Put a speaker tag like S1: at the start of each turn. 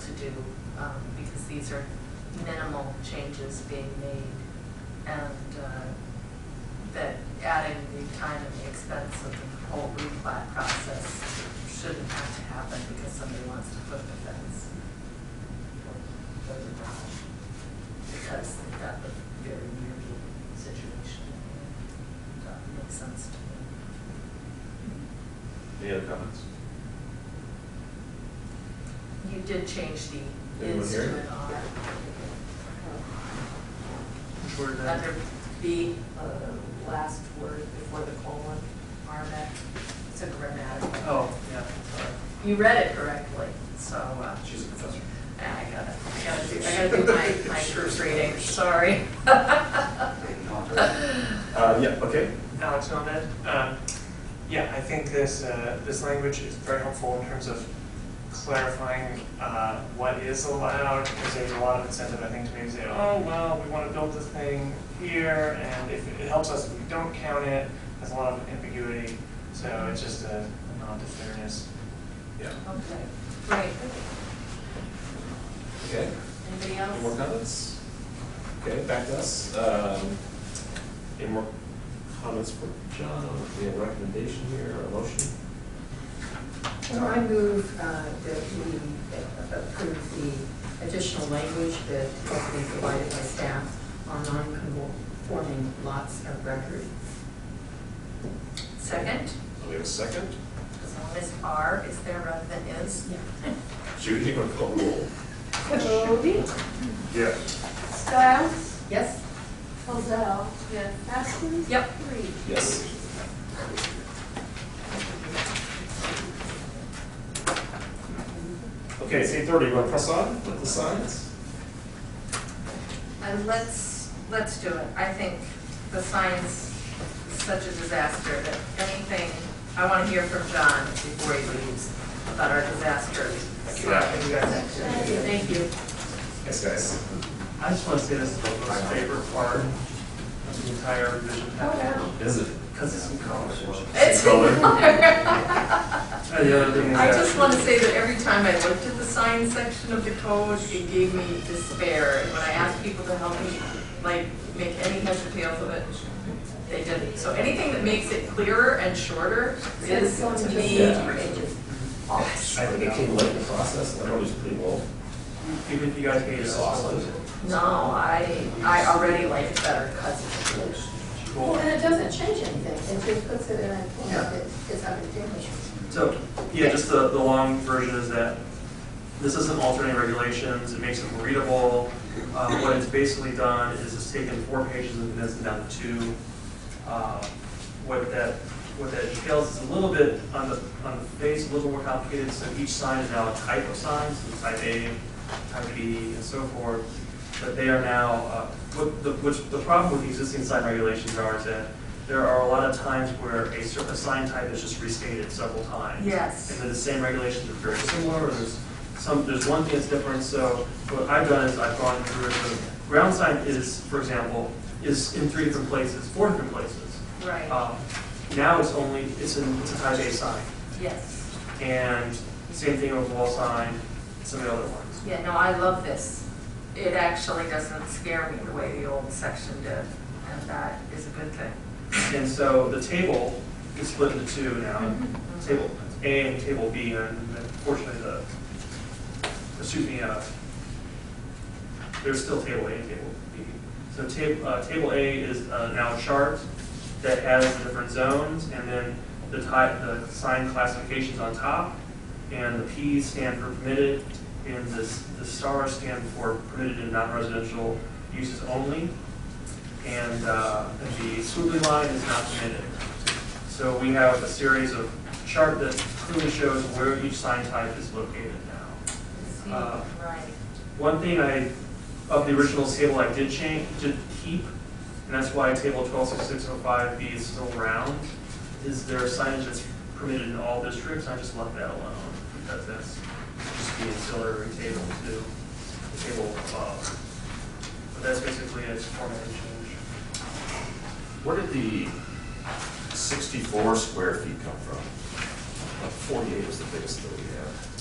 S1: to, um, because these are minimal changes being made. And uh, that adding the time and the expense of the whole replat process shouldn't have to happen because somebody wants to put in a fence. or build a garage, Because they've got the very weird situation. Doesn't make sense to me.
S2: Any other comments?
S1: You did change the
S2: Anyone
S1: is
S2: here?
S1: to an are.
S3: Where that-
S1: Under B, uh, last word before the colon, RMAC, it's a grammatical.
S3: Oh, yeah.
S1: You read it correctly, so, uh,
S2: She's a professor.
S1: I gotta, I gotta do, I gotta do my, my first reading, sorry.
S2: Uh, yeah, okay.
S4: Alex on that.
S3: Uh,
S4: Um, Yeah, I think this, uh, this language is very helpful in terms of clarifying uh, what is allowed, because there's a lot of incentive, I think, to maybe say, oh, well, we want to build this thing here, and if it helps us, if we don't count it, there's a lot of ambiguity, so it's just a a nod to fairness.
S2: Yeah.
S1: Okay, great.
S2: Okay.
S1: Anybody
S2: Any more
S1: else?
S2: comments? Okay, back to us. Um, Any more comments for John? We have a recommendation here, or a motion?
S5: Well, I move uh, that we uh, approve the additional language that has been provided by staff on non-conforming lots of record.
S1: Second,
S2: We have a second.
S1: as long as R is there rather than is.
S2: Judy, you want to call the roll?
S6: Cody,
S2: Yeah.
S6: Styles,
S5: Yes?
S6: Mozell,
S1: Yes.
S6: Haskins.
S1: Yep.
S6: Reed.
S2: Yes. Okay, it's eight thirty, you want to press on with the signs?
S1: And let's, let's do it. I think the science is such a disaster that anything, I want to hear from John before he leaves about our disaster. Thank you.
S2: Yes, guys.
S3: I just want to say this is the most favorite part of the entire revision package,
S1: Oh,
S2: Is it?
S3: because it's in color.
S1: It's
S3: And the other thing is
S1: I just
S3: that-
S1: want to say that every time I looked at the science section of the code, it gave me despair. And when I asked people to help me, like, make any heads or tails of it, they didn't. So anything that makes it clearer and shorter is
S5: So it's
S1: to
S5: just
S1: me.
S2: Yeah.
S5: three pages.
S2: I think it came late in the process, and I thought it was pretty well.
S3: You could- you guys made us
S2: Exhausted.
S1: No, I, I already like it better because it's blue.
S5: Well, and it doesn't change anything, it just puts it in a form that is undistinguishable.
S3: So, yeah, just the, the long version is that this isn't altering regulations, it makes it more readable. Uh, what it's basically done is it's taken four pages and condensed them down to two. Uh, What that, what that entails is a little bit, on the, on the face, a little more complicated, so each sign is now a type of sign, so type A, type B, and so forth. But they are now, uh, what, the, which, the problem with the existing sign regulations are is that there are a lot of times where a certain sign type is just restated several times.
S1: Yes.
S3: And then the same regulations are very similar, or there's some, there's one thing that's different, so what I've done is I've gone through, the ground sign is, for example, is in three different places, four different places.
S1: Right,
S3: Um, Now it's only, it's in, it's a type A sign,
S1: yes.
S3: and same thing with wall sign, some of the other ones.
S1: Yeah, no, I love this. It actually doesn't scare me the way the old section did, and that is a good thing.
S3: And so the table is split into two now,
S1: Mm-hmm.
S3: table A and table B, and unfortunately the, excuse me, uh, there's still table A and table B. So table, uh, table A is uh, now a chart that has the different zones, and then the type, the sign classifications on top, and the P's stand for permitted, and the, s- the stars stand for permitted and non-residential uses only. And, uh, the swooping line is not permitted. So we have a series of chart that clearly shows where each sign type is located now.
S1: See,
S3: Uh,
S1: Right.
S3: One thing I, of the original table, I did change, did keep, and that's why table twelve six six oh five B is still round, is there signage that's permitted in all districts, I just left that alone, because that's just the ancillary table to the table above. But that's basically a formatting change.
S7: Where did the sixty-four square feet come from? Like forty-eight was the biggest that we had.